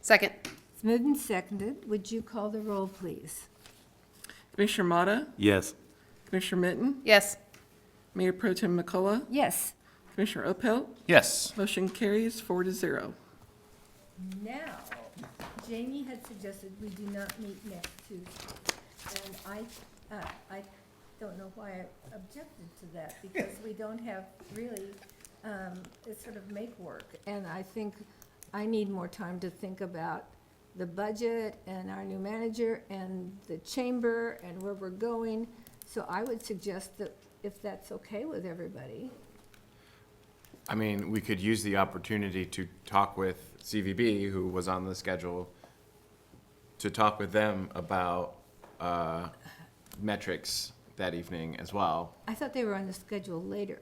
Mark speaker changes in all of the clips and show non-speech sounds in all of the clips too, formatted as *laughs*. Speaker 1: Second.
Speaker 2: It's moved and seconded. Would you call the roll, please?
Speaker 3: Commissioner Motta,
Speaker 4: Yes.
Speaker 3: Commissioner Mitten,
Speaker 1: Yes.
Speaker 3: Mayor Pro Tem McCullough,
Speaker 2: Yes.
Speaker 3: Commissioner Opel,
Speaker 5: Yes.
Speaker 3: motion carries four to zero.
Speaker 2: Now, Jamie had suggested we do not meet next Tuesday. And I, uh, I don't know why I objected to that, because we don't have really, um, it's sort of make work. And I think I need more time to think about the budget and our new manager and the chamber and where we're going. So I would suggest that if that's okay with everybody.
Speaker 5: I mean, we could use the opportunity to talk with CVB, who was on the schedule, to talk with them about uh, metrics that evening as well.
Speaker 2: I thought they were on the schedule later.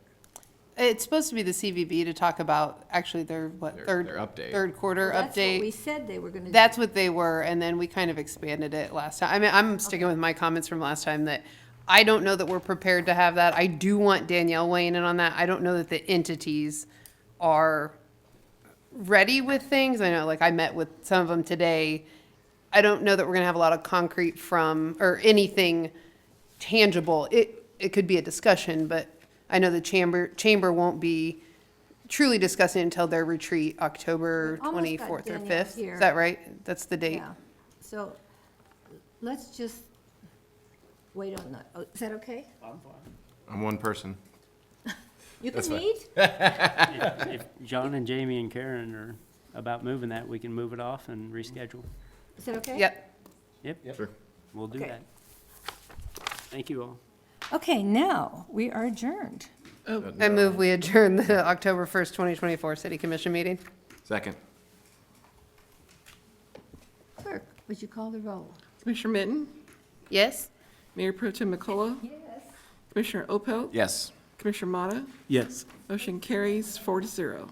Speaker 1: It's supposed to be the CVB to talk about actually their, what,
Speaker 5: Their-
Speaker 1: third?
Speaker 5: their update.
Speaker 1: Third quarter
Speaker 2: That's what we
Speaker 1: update.
Speaker 2: said they were gonna do.
Speaker 1: That's what they were, and then we kind of expanded it last time. I mean, I'm sticking with my comments from last time that I don't know that we're prepared to have that. I do want Danielle weighing in on that. I don't know that the entities are ready with things. I know, like, I met with some of them today. I don't know that we're gonna have a lot of concrete from, or anything tangible. It, it could be a discussion, but I know the chamber, chamber won't be truly discussing until their retreat, October
Speaker 2: We almost got
Speaker 1: twenty-fourth or
Speaker 2: Danielle
Speaker 1: fifth.
Speaker 2: here.
Speaker 1: Is that right? That's the date.
Speaker 2: Yeah, so let's just wait on that. Oh, Is that okay?
Speaker 5: I'm one person.
Speaker 2: You can
Speaker 5: That's fine.
Speaker 2: meet?
Speaker 6: If John and Jamie and Karen are about moving that, we can move it off and reschedule.
Speaker 2: Is that okay?
Speaker 1: Yep.
Speaker 6: Yep,
Speaker 5: Sure.
Speaker 6: we'll do
Speaker 2: Okay.
Speaker 6: that. Thank you all.
Speaker 2: Okay, now, we are adjourned.
Speaker 1: I move we adjourn the *laughs* October first, twenty twenty-four city commission meeting.
Speaker 5: Second.
Speaker 2: Clerk, would you call the roll?
Speaker 3: Commissioner Mitten,
Speaker 1: Yes?
Speaker 3: Mayor Pro Tem McCullough,
Speaker 2: Yes.
Speaker 3: Commissioner Opel,
Speaker 5: Yes.
Speaker 3: Commissioner Motta,
Speaker 4: Yes.
Speaker 3: motion carries four to zero.